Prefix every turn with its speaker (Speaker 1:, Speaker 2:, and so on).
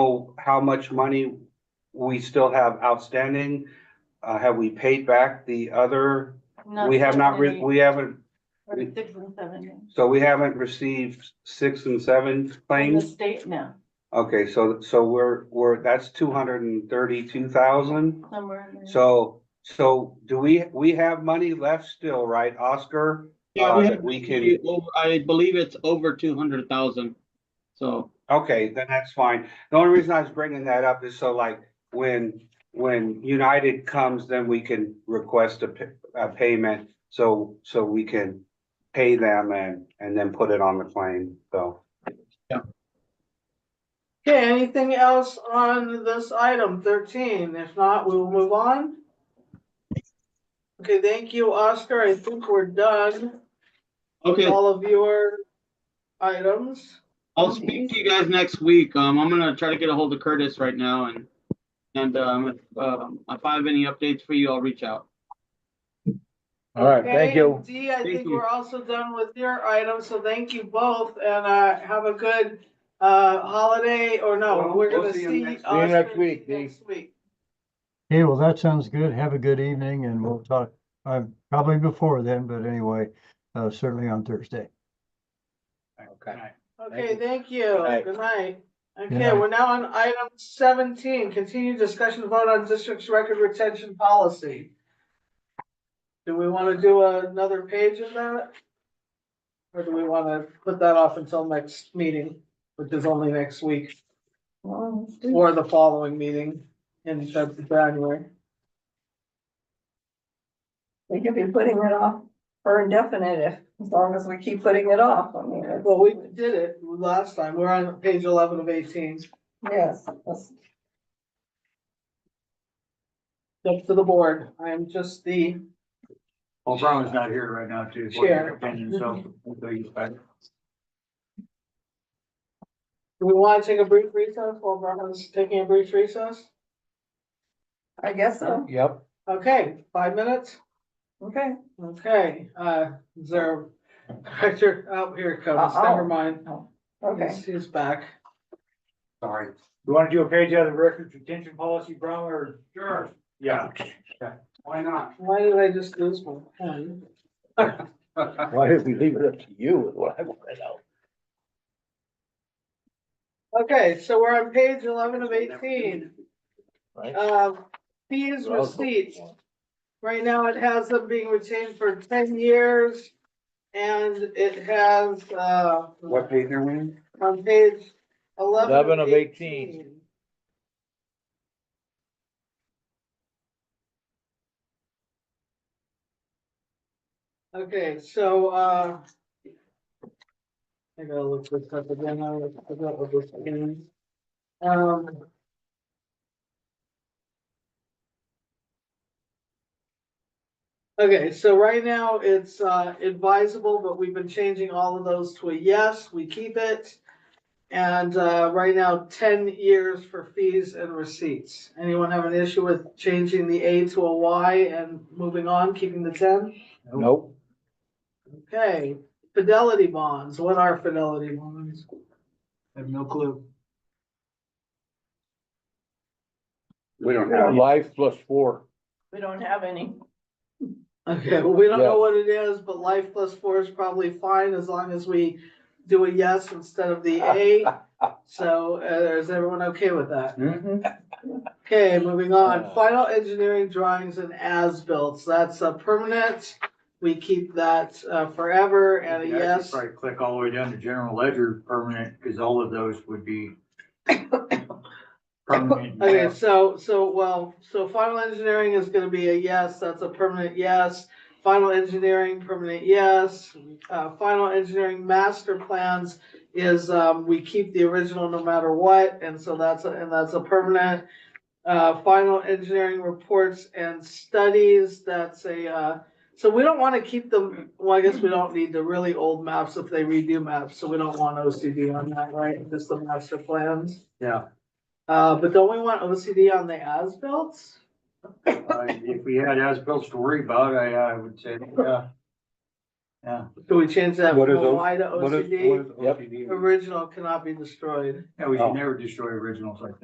Speaker 1: know how much money we still have outstanding? Uh, have we paid back the other? We have not, re- we haven't, we-
Speaker 2: Six and seven.
Speaker 1: so we haven't received six and seven
Speaker 2: In the
Speaker 1: claims?
Speaker 2: state now,
Speaker 1: Okay, so, so we're, we're, that's two hundred and thirty-two thousand?
Speaker 2: somewhere in there.
Speaker 1: So, so do we, we have money left still, right, Oscar?
Speaker 3: Yeah,
Speaker 1: Uh,
Speaker 3: we
Speaker 1: that
Speaker 3: have-
Speaker 1: we can-
Speaker 3: we- over- I believe it's over two hundred thousand, so.
Speaker 1: Okay, then that's fine. The only reason I was bringing that up is so like, when, when United comes, then we can request a, pa- a payment. So, so we can pay them and, and then put it on the claim, so.
Speaker 4: Okay, anything else on this item thirteen? If not, we will move on. Okay, thank you, Oscar. I think we're done. with
Speaker 3: Okay,
Speaker 4: All of your items.
Speaker 3: I'll speak to you guys next week. Um, I'm gonna try to get a hold of Curtis right now and, and, um, if, um, if I have any updates for you, I'll reach out.
Speaker 5: All right, thank
Speaker 4: Okay,
Speaker 5: you.
Speaker 4: Dee, I
Speaker 3: Thank
Speaker 4: think
Speaker 3: you.
Speaker 4: we're also done with your items, so thank you both and uh have a good uh holiday or no,
Speaker 1: Well,
Speaker 4: we're
Speaker 1: we'll
Speaker 4: gonna
Speaker 1: see you
Speaker 4: see.
Speaker 1: next-
Speaker 5: See you next
Speaker 4: Oscar
Speaker 5: week, Dee.
Speaker 4: Next week.
Speaker 6: Hey, well, that sounds good. Have a good evening and we'll talk, uh, probably before then, but anyway, uh, certainly on Thursday.
Speaker 5: Okay.
Speaker 4: Okay,
Speaker 5: you.
Speaker 4: thank you.
Speaker 5: Good night.
Speaker 4: Good night. Okay,
Speaker 6: night.
Speaker 4: we're now on item seventeen, continued discussion vote on district's record retention policy. Do we wanna do another page of that? Or do we wanna put that off until next meeting, which is only next week?
Speaker 2: Well, let's do-
Speaker 4: Or the following meeting in Feb- January.
Speaker 2: We could be putting it off for indefinite if, as long as we keep putting it off. I mean, it's-
Speaker 4: Well, we did it last time. We're on page eleven of eighteen.
Speaker 2: Yes, that's-
Speaker 4: Up to the board. I'm just the,
Speaker 7: Well, Brown's not here right now too. so we'll
Speaker 4: Sure.
Speaker 7: take opinions, so we'll use that.
Speaker 4: do we want to take a brief recess while Brian's taking a brief recess?
Speaker 2: I guess so.
Speaker 5: Yep.
Speaker 4: Okay, five minutes?
Speaker 2: Okay.
Speaker 4: Okay, uh, is there, Director, oh, here it comes.
Speaker 2: Uh-oh.
Speaker 4: Never mind.
Speaker 2: Okay.
Speaker 4: He's, he's back.
Speaker 1: Sorry.
Speaker 7: You want to do a page out of the records retention policy, Brown, or?
Speaker 1: Sure,
Speaker 7: Yeah.
Speaker 1: why not?
Speaker 4: Why did I just lose my pen?
Speaker 5: Why did we leave it up to you is what I want to know?
Speaker 4: Okay, so we're on page eleven of eighteen.
Speaker 5: Right?
Speaker 4: Uh, fees receipts. Right now, it has them being retained for ten years. And it has, uh,
Speaker 1: What page are we in?
Speaker 4: on page eleven.
Speaker 5: 11 of 18.
Speaker 4: Okay, so, uh. I gotta look this up again, I forgot what this is. Um. Okay, so right now it's uh, advisable, but we've been changing all of those to a yes, we keep it. And uh, right now, ten years for fees and receipts. Anyone have an issue with changing the A to a Y and moving on, keeping the ten?
Speaker 5: Nope.
Speaker 4: Okay, fidelity bonds, what are fidelity bonds?
Speaker 7: I have no clue.
Speaker 1: We don't have.
Speaker 5: Life plus four.
Speaker 2: We don't have any.
Speaker 4: Okay, well, we don't
Speaker 5: Yeah.
Speaker 4: know what it is, but life plus four is probably fine as long as we do a yes instead of the A. So uh, is everyone okay with that? Okay, moving on.
Speaker 5: Uh.
Speaker 4: Final engineering drawings and as-built. So that's a permanent. We keep that uh, forever and a
Speaker 7: Yeah, I could
Speaker 4: yes.
Speaker 7: Probably click all the way down to general ledger permanent, because all of those would be. Permanent.
Speaker 4: Okay, so, so, well, so final engineering is gonna be a yes, that's a permanent yes. Final engineering, permanent yes. Uh, final engineering master plans is, um, we keep the original no matter what, and so that's, a- and that's a permanent. Uh, final engineering reports and studies, that's a, uh, so we don't wanna keep them, well, I guess we don't need the really old maps if they redo maps, so we don't want OCD on that, right? Just the master plans.
Speaker 7: Yeah,
Speaker 4: Uh, but don't we want OCD on the as built?
Speaker 7: uh, if we had as-bills to worry about, I, I would say, yeah. Yeah.
Speaker 4: Can we change that
Speaker 1: What
Speaker 4: from
Speaker 1: is O-
Speaker 4: Y to
Speaker 1: What is,
Speaker 4: OCD?
Speaker 1: what is OCD?
Speaker 4: Original cannot be destroyed.
Speaker 7: Yeah, we
Speaker 5: Oh.
Speaker 7: should never destroy originals like that.